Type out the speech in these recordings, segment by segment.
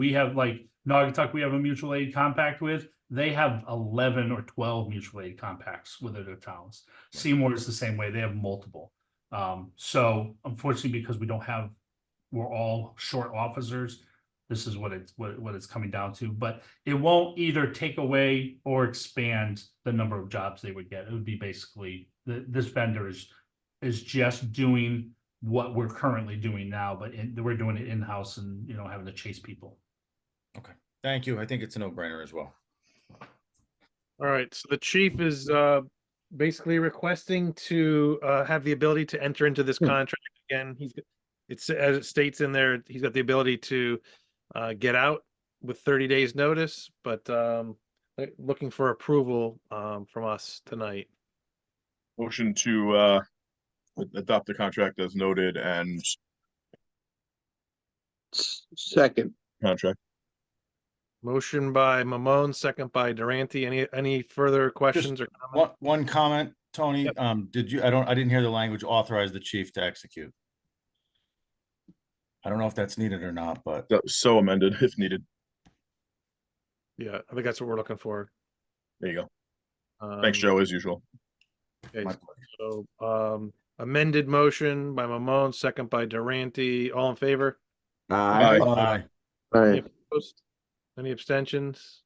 We have like Naugatuck, we have a mutual aid compact with, they have eleven or twelve mutual aid compacts with other towns. Seymour is the same way, they have multiple. Um, so unfortunately, because we don't have, we're all short officers, this is what it's, what, what it's coming down to, but it won't either take away or expand the number of jobs they would get. It would be basically, th- this vendor is, is just doing what we're currently doing now, but in, we're doing it in-house and, you know, having to chase people. Thank you. I think it's a no-brainer as well. All right, so the chief is uh basically requesting to uh have the ability to enter into this contract again. He's it's as it states in there, he's got the ability to uh get out with thirty days notice, but um like, looking for approval um from us tonight. Motion to uh a- adopt the contract as noted and S- Second, contract. Motion by Mamone, second by Durante. Any any further questions or comments? One, one comment, Tony, Yep. um, did you, I don't, I didn't hear the language authorize the chief to execute. I don't know if that's needed or not, but That was so amended if needed. Yeah, I think that's what we're looking for. There you go. Thanks, Um, Joe, as usual. okay, my- So um amended motion by Mamone, second by Durante. All in favor? aye, Aye. aye, Opposed? Any abstentions?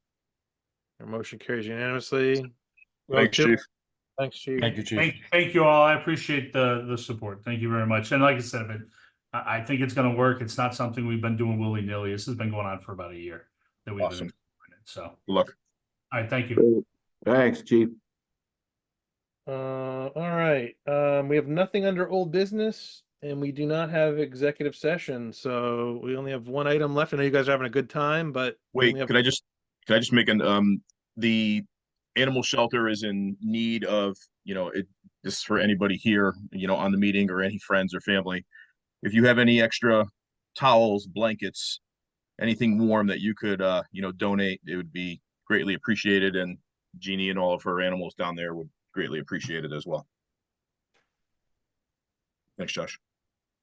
Our motion carries unanimously. Well, Thanks, Chip- Chief. Thank you. thank you, chief. Thank, thank you all. I appreciate the, the support. Thank you very much. And like I said, if it- I, I think it's gonna work. It's not something we've been doing willy-nilly. This has been going on for about a year. that we've been Awesome. doing it. So, all Good luck. right, thank you. thanks, chief. Uh, all right, um, we have nothing under old business and we do not have executive session, so we only have one item left. I know you guys are having a good time, but. we Wait, only have- could I just, could I just make an, um, the animal shelter is in need of, you know, it, this is for anybody here, you know, on the meeting or any friends or family. If you have any extra towels, blankets, anything warm that you could, uh, you know, donate, it would be greatly appreciated and Jeannie and all of her animals down there would greatly appreciate it as well. Thanks, Josh.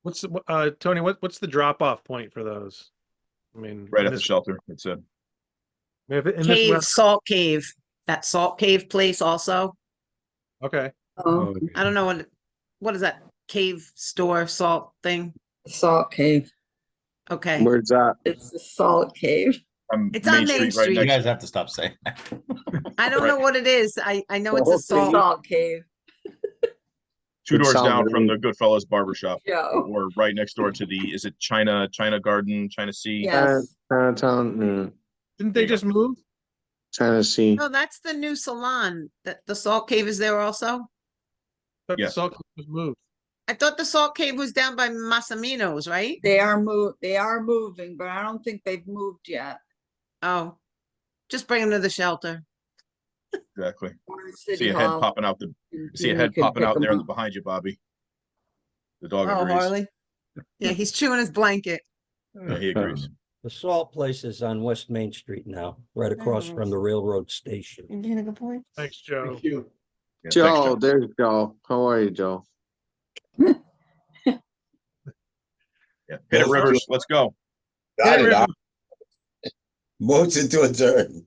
What's, the- wh- uh, Tony, what, what's the drop off point for those? I mean. Right in at the this- shelter, it said. if it- in this Cave, web- Salt Cave, that Salt Cave place also. Okay, Um, Oh, I don't know what, what is that cave store salt thing? salt cave. Okay, Where's that? It's the salt cave. It's on Main right Street. You next- guys have to stop saying that. I don't know right. what it is. I, I know it's Well, a It's the salt. salt cave, Two It doors sounded down from the like- Goodfellas Barber Shop. Joe. or right next door to the, is it China, China Garden, China Sea? Yes, Chinatown, mm, didn't There they you go. just move? Tennessee. No, that's the new salon. That the Salt Cave is there also? Thought the Yes. Salt Cave was moved. I thought the Salt Cave was down by Masaminos, right? they are move, they are moving, but I don't think they've moved yet. Oh, just bring them to the shelter. Exactly. Or in See City a head Hall, popping out the, and see a you head can popping pick out 'em there up. behind you, Bobby. The dog Oh, agrees. Harley. Yeah, he's chewing his blanket. Yeah, He agrees. The salt place is on West Main Street now, right across from the railroad station. You getting a good point? Thanks, Joe. you. Yeah, thanks, Joe, there's Joe. How are you, Joe? Yeah. Hit it, Rivers. Let's go. Hey, Got it. River. I- Motion to adjourn.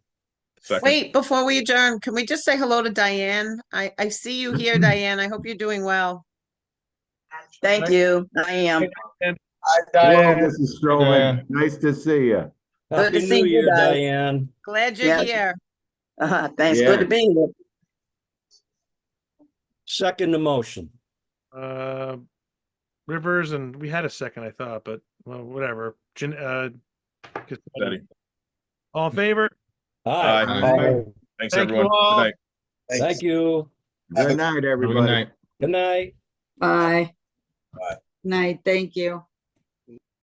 Second. Wait, before we adjourn, can we just say hello to Diane? I, I see you here, Diane. I hope you're doing well. Right. Thank you. I am. Hi, Hello, Diane. Mrs. Strowman. Nice to see you. Good to Happy see New you Year, guys. Diane. Glad you're Yeah. here. Uh-huh. Thanks. Good to Yeah. be here. Second the motion. Uh, Rivers and we had a second, I thought, but well, whatever. Jan- uh, Cassetti. Steady. All in favor? Hi. Aye. Hi. Thank Thanks, you everyone. Good all. night. Thank you. Have a- Good night, Good everybody. night. Good night. Bye. Bye. Night, thank you.